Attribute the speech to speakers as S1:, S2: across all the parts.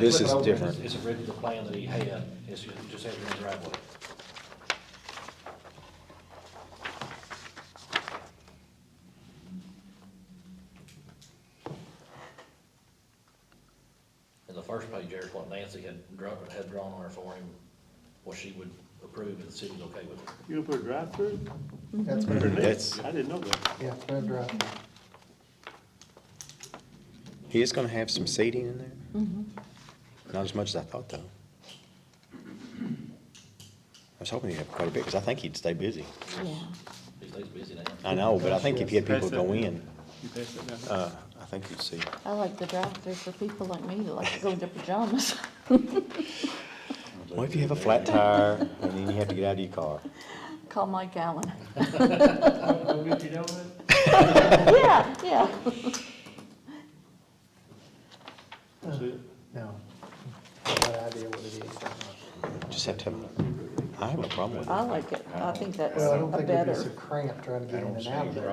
S1: This
S2: Flip it
S1: is
S2: over,
S1: different.
S2: It's it's a regular plan that he had, it's ju- just has one driveway. In the first page, Eric, what Nancy had drawn, had drawn on her for him, what she would approve and the city's okay with it.
S3: You gonna put a drive-through?
S4: That's,
S1: That's,
S3: I didn't know that.
S4: yeah, red drive.
S1: he is gonna have some seating in there? Not as much as I thought, though. I was hoping he'd have quite a bit, because I think he'd stay busy.
S5: Yeah,
S2: He stays busy now.
S1: I know, but I think if he had people go in,
S3: You passed that down?
S1: uh, I think you'd see.
S5: I like the drive-through for people like me that like to go in their pajamas.
S1: What if you have a flat tire, and then you have to get out of your car?
S5: Call Mike Allen.
S6: I'll get you down there.
S5: Yeah, yeah.
S3: That's it.
S4: No, no idea what it is.
S1: Just have to, have. I have no problem with
S5: I like it. I think that's
S4: Well, I don't
S5: a
S4: think it'd be so
S5: better.
S4: cramped trying to get in and out of there.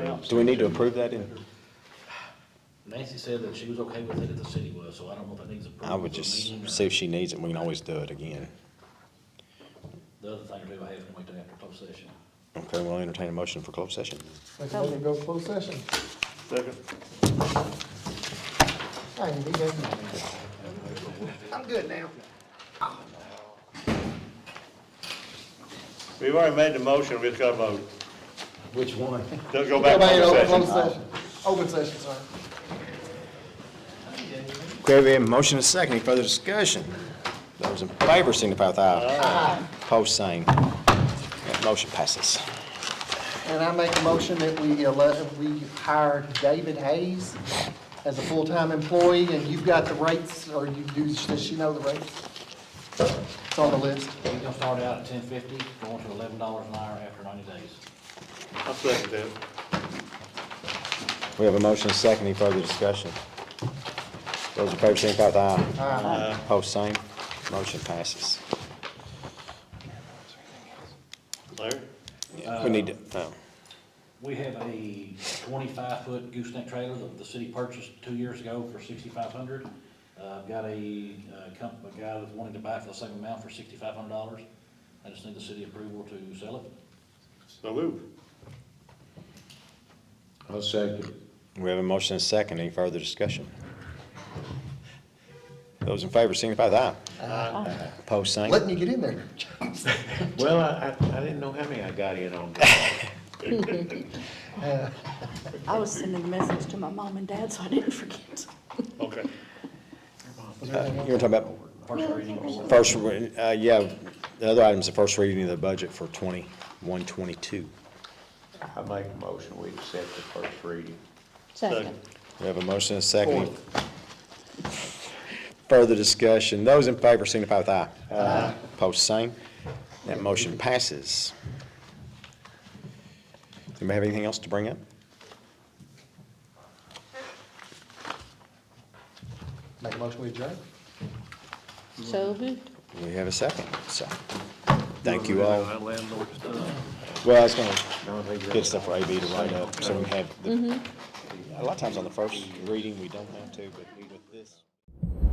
S5: Yeah.
S1: it. Do we need to approve that? in-
S2: Nancy said that she was okay with it if the city was, so I don't know if that needs approval.
S1: I would
S2: of the meeting or-
S1: just, see if she needs it, we can always do it again.
S2: The other thing, do I have to wait till after closed session?
S1: Okay, we'll entertain a motion for closed session.
S4: Make a motion to go closed session.
S3: Second.
S4: I can be designated. I'm good now.
S3: We've already made the motion, we just gotta vote.
S2: Which one?
S3: Don't go back
S4: Go
S3: to
S4: back to
S3: the session.
S4: open closed session, open session, sorry.
S1: Okay, we have a motion and a second, any further discussion? Those in favor signify with aye. Post same. That motion passes.
S4: And I make a motion that we ele we hire David Hayes as a full-time employee, and you've got the rates, or you do, does she know the rates? It's on the list.
S2: We're gonna start out at ten fifty, going to eleven dollars an hour after ninety days.
S3: I'll second that.
S1: We have a motion and a second, any further discussion? Those in favor signify with aye.
S4: Uh,
S1: Post same. Motion passes.
S3: Larry?
S1: We need to, oh,
S2: We have a twenty-five foot gooseneck trailer that the city purchased two years ago for sixty-five hundred. Uh, I've got a, uh, comp, a guy that's wanting to buy it for the same amount for sixty-five hundred dollars. I just need the city approval to sell it.
S3: So move.
S6: I'll second.
S1: we have a motion and a second, any further discussion? Those in favor signify with aye. Post same.
S4: Letting you get in there.
S6: Well, I, I I didn't know how many I got in on.
S5: I was sending a message to my mom and dad, so I didn't forget.
S3: Okay.
S1: Uh, You're talking about
S2: First reading,
S1: First, re- uh, yeah, the other item's the first reading of the budget for twenty-one, twenty-two.
S6: I make a motion, we accept the first reading.
S3: Second.
S1: We have a motion and a second. Further discussion, those in favor signify with aye. Aye. Post same, that motion passes. Anybody have anything else to bring up?
S4: Make a motion we adjourn.
S5: So moved.
S1: We have a second, so, thank you all.
S6: My landlord stuff.
S1: Well, I was gonna
S6: No, they got-
S1: get stuff for AB to write up, so we have, the- a lot of times on the first reading, we don't have to, but with this.